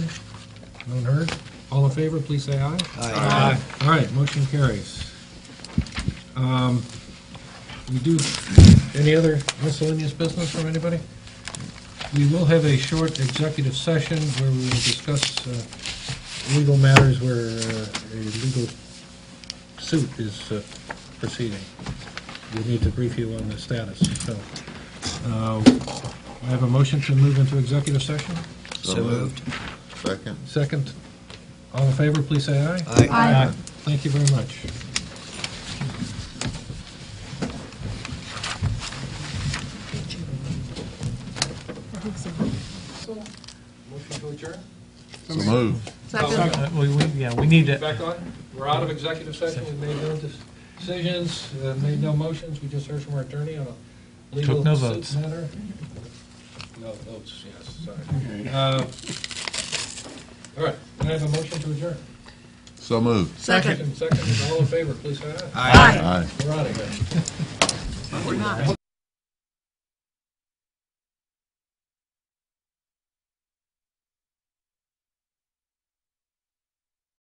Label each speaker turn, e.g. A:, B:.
A: None heard? All in favor, please say aye. Aye. All right, motion carries. Um, We do, any other miscellaneous business from anybody? We will have a short executive session where we will discuss uh, legal matters where uh, a legal suit is uh, proceeding. We need to brief you on the status, so. uh, I have a motion to move into executive session.
B: So moved. Second.
A: Second, all in favor, please say aye.
C: Aye.
A: Thank you very much. Motion to adjourn?
B: So moved.
C: Second.
D: Uh, we- we- Yeah, we need to,
A: Back on? We're out of executive session, we made no decisions, uh, made no motions, we just heard from our attorney on a legal
D: Took no
A: suit
D: votes.
A: matter. No votes, yes, sorry. Uh, All right, can I have a motion to adjourn?
B: So moved.
C: Second.
A: Second, all in favor, please say aye.
C: Aye.
B: Aye.
A: We're out of here.
C: Not.